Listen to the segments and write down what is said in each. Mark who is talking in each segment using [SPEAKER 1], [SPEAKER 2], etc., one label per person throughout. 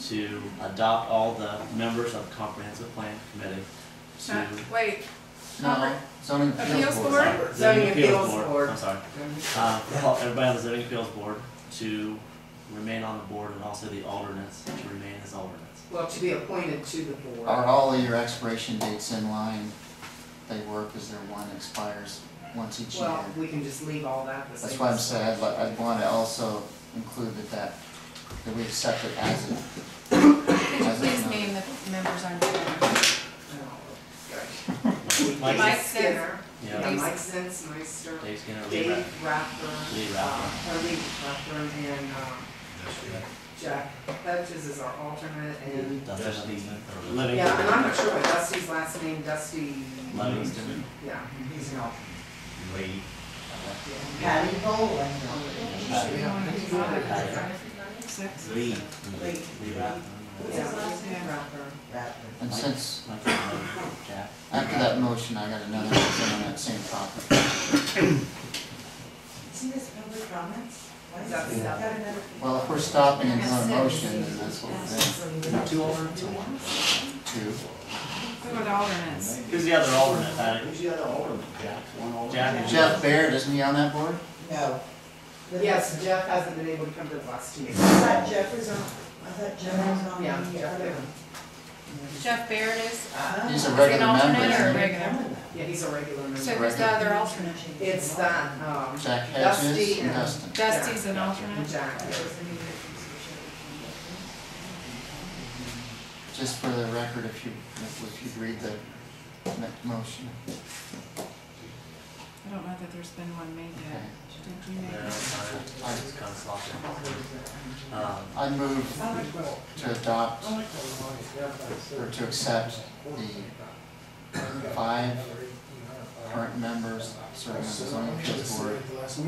[SPEAKER 1] to adopt all the members of comprehensive plan committee
[SPEAKER 2] Uh,
[SPEAKER 1] to.
[SPEAKER 2] Wait,
[SPEAKER 3] No, zoning appeals
[SPEAKER 2] Appeals
[SPEAKER 3] board.
[SPEAKER 2] Board?
[SPEAKER 1] Zoning
[SPEAKER 4] Zoning Appeals Board.
[SPEAKER 1] I'm sorry, uh, for all- everybody on the zoning appeals board to remain on the board and also the alternates to remain as alternates.
[SPEAKER 4] Well, to be appointed to the board.
[SPEAKER 3] Are all of your expiration dates in line? They work, is there one expires once each year?
[SPEAKER 4] Well, we can just leave all that the same.
[SPEAKER 3] That's why I'm
[SPEAKER 4] as-
[SPEAKER 3] saying, I'd, li- I'd wanna also include that, that, that we accept it as a,
[SPEAKER 2] could you
[SPEAKER 3] As of
[SPEAKER 2] please
[SPEAKER 3] now.
[SPEAKER 2] name the members on your board?
[SPEAKER 4] Oh,
[SPEAKER 1] Mike-
[SPEAKER 4] good.
[SPEAKER 1] Mike,
[SPEAKER 2] Mike
[SPEAKER 4] Mike
[SPEAKER 2] Skinner.
[SPEAKER 4] Skinner,
[SPEAKER 1] yeah,
[SPEAKER 4] yeah,
[SPEAKER 2] Dave-
[SPEAKER 4] Mike Sins, Meister,
[SPEAKER 1] Dave Skinner, Lee Ra-
[SPEAKER 4] Dave Rathburn.
[SPEAKER 1] Lee
[SPEAKER 4] uh,
[SPEAKER 1] Rathburn.
[SPEAKER 4] Or Lee Rathburn and, um, Jack Hodges is our alternate and,
[SPEAKER 1] Dustin Livingston, or
[SPEAKER 4] yeah, and
[SPEAKER 1] Livingston,
[SPEAKER 4] I'm not sure about Dusty's last name, Dusty,
[SPEAKER 1] Livingston.
[SPEAKER 4] yeah, he's an alternate. yeah.
[SPEAKER 5] Patty Boland.
[SPEAKER 2] Six.
[SPEAKER 1] Lee.
[SPEAKER 5] Lee.
[SPEAKER 1] Lee Rathburn.
[SPEAKER 4] Yeah, Lee Rathburn.
[SPEAKER 3] and since,
[SPEAKER 1] Mike, uh, Jack.
[SPEAKER 3] After that motion, I got another one on that same topic.
[SPEAKER 5] See this public comments? Why is
[SPEAKER 4] Yeah.
[SPEAKER 5] it- I've got another-
[SPEAKER 3] Well, if we're stopping and doing a motion, then that's what we're
[SPEAKER 1] Two alternates or one?
[SPEAKER 3] doing. Two.
[SPEAKER 2] Who are the alternates?
[SPEAKER 1] Who's the other alternate, Patty?
[SPEAKER 6] Who's the other alderman? Jack, one alderman.
[SPEAKER 1] Jack.
[SPEAKER 3] Jeff Baird, isn't he on that board?
[SPEAKER 5] No. But
[SPEAKER 4] Yes, Jeff hasn't been able to come to the last two
[SPEAKER 5] I
[SPEAKER 4] meetings.
[SPEAKER 5] thought Jeff was on, I thought Jeff was on
[SPEAKER 4] Yeah,
[SPEAKER 5] the
[SPEAKER 4] Jeff
[SPEAKER 5] other.
[SPEAKER 4] Baird.
[SPEAKER 2] Jeff Baird is,
[SPEAKER 5] Uh,
[SPEAKER 3] He's a
[SPEAKER 2] an
[SPEAKER 3] regular member,
[SPEAKER 2] alternate or
[SPEAKER 3] isn't
[SPEAKER 2] a
[SPEAKER 3] he?
[SPEAKER 2] regular?
[SPEAKER 4] Yeah, he's a regular member.
[SPEAKER 2] so who's the other alternate?
[SPEAKER 4] It's that, um,
[SPEAKER 3] Jack
[SPEAKER 4] Dusty
[SPEAKER 3] Hedges and
[SPEAKER 4] and-
[SPEAKER 3] Dustin.
[SPEAKER 2] Dusty's an alternate?
[SPEAKER 4] Jack.
[SPEAKER 3] Just for the record, if you, if you'd read the next motion.
[SPEAKER 2] I don't know that there's been one made yet. Did you
[SPEAKER 1] Yeah,
[SPEAKER 2] make
[SPEAKER 1] Uh, I
[SPEAKER 2] it?
[SPEAKER 1] just kinda slopped it. Um,
[SPEAKER 3] I move to adopt or to accept the five current members serving on the zoning appeals board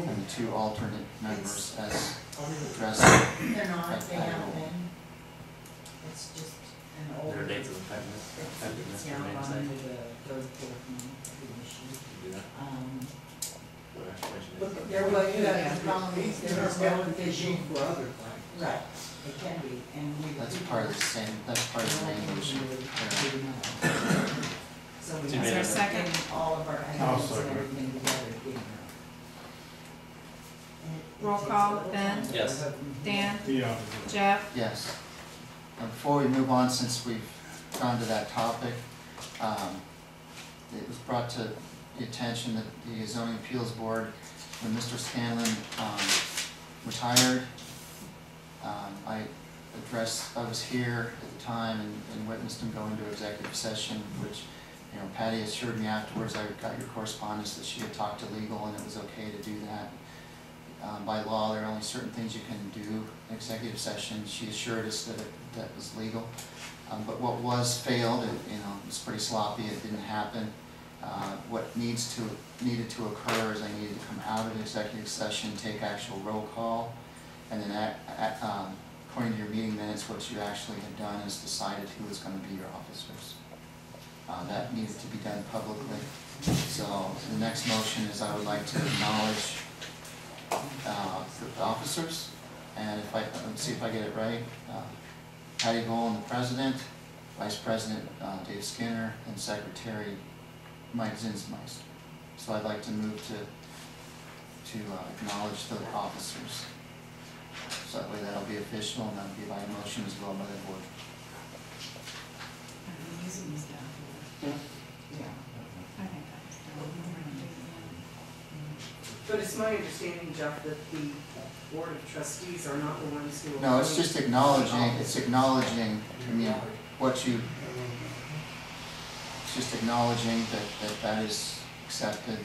[SPEAKER 3] and two alternate members as addressed.
[SPEAKER 5] They're not, they haven't been. It's just an old.
[SPEAKER 1] Their dates of effectiveness,
[SPEAKER 5] It's
[SPEAKER 1] effectiveness
[SPEAKER 5] now
[SPEAKER 1] remain the
[SPEAKER 5] on
[SPEAKER 1] same.
[SPEAKER 5] to the third, fourth, and fifth
[SPEAKER 1] Do that.
[SPEAKER 5] issue. Um,
[SPEAKER 1] What expiration date?
[SPEAKER 5] But there was, Um, yeah, the problem is there was no vision. Right, it can be, and we.
[SPEAKER 3] That's part of the same, that's part of the main motion.
[SPEAKER 5] So
[SPEAKER 1] Two
[SPEAKER 5] we
[SPEAKER 2] Is there a
[SPEAKER 5] have
[SPEAKER 1] minutes.
[SPEAKER 5] to
[SPEAKER 2] second?
[SPEAKER 5] get all of our items and everything together again.
[SPEAKER 2] Roll call, Ben?
[SPEAKER 1] Yes.
[SPEAKER 2] Dan? Jeff?
[SPEAKER 3] Yes. And Before we move on, since we've gone to that topic, um, it was brought to the attention that the zoning appeals board, when Mr. Scanlon, um, retired, um, I addressed, I was here at the time and- and witnessed him go into executive session, which, you know, Patty assured me afterwards, I got your correspondence that she had talked to legal and it was okay to do that um, by law, there are only certain things you can do in executive session. She assured us that it, that was legal. Um, but what was failed, it, you know, it's pretty sloppy, it didn't happen. Uh, what needs to, needed to occur is I needed to come out of executive session, take actual roll call, and then act, a um, according to your meeting minutes, what you actually had done is decided who was gonna be your officers. Uh, that needed to be done publicly. So the next motion is I would like to acknowledge uh, the officers, and if I, let's see if I get it right, uh, Patty Bowen, the president, vice president, uh, Dave Skinner, and secretary, Mike Zinsmeister. So I'd like to move to, to uh, acknowledge the officers. So that way that'll be official, and that'll be by motion as well by the board.
[SPEAKER 2] I
[SPEAKER 4] Yeah.
[SPEAKER 2] think that was the one.
[SPEAKER 4] But it's my understanding, Jeff, that the board of trustees are not the ones who.
[SPEAKER 3] No, it's just acknowledging, it's acknowledging, I mean, what you, it's just acknowledging that, that that is accepted, that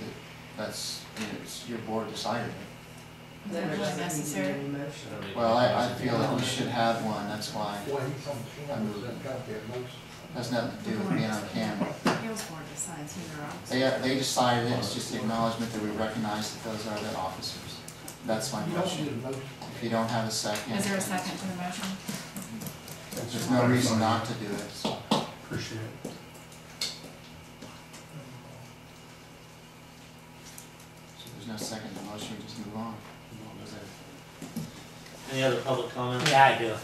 [SPEAKER 3] that's, you know, it's your board decided it.
[SPEAKER 2] Is
[SPEAKER 4] Then
[SPEAKER 2] that
[SPEAKER 4] there
[SPEAKER 2] really
[SPEAKER 4] doesn't need to be
[SPEAKER 2] necessary?
[SPEAKER 4] any motion.
[SPEAKER 1] Should I make
[SPEAKER 3] Well, I, I
[SPEAKER 1] a
[SPEAKER 3] feel that we should have one, that's why, has nothing to do with being on camera.
[SPEAKER 2] Appeals board decides who their officers.
[SPEAKER 3] They, they decided it, it's just the acknowledgement that we recognize that those are the officers. That's my motion. If you don't have a second.
[SPEAKER 2] Is there a second to the motion?
[SPEAKER 3] There's no reason not to do it, so.
[SPEAKER 7] Appreciate it.
[SPEAKER 3] So there's no second to the motion, we just move on.
[SPEAKER 1] motion? Any other public comment? Yeah, I do.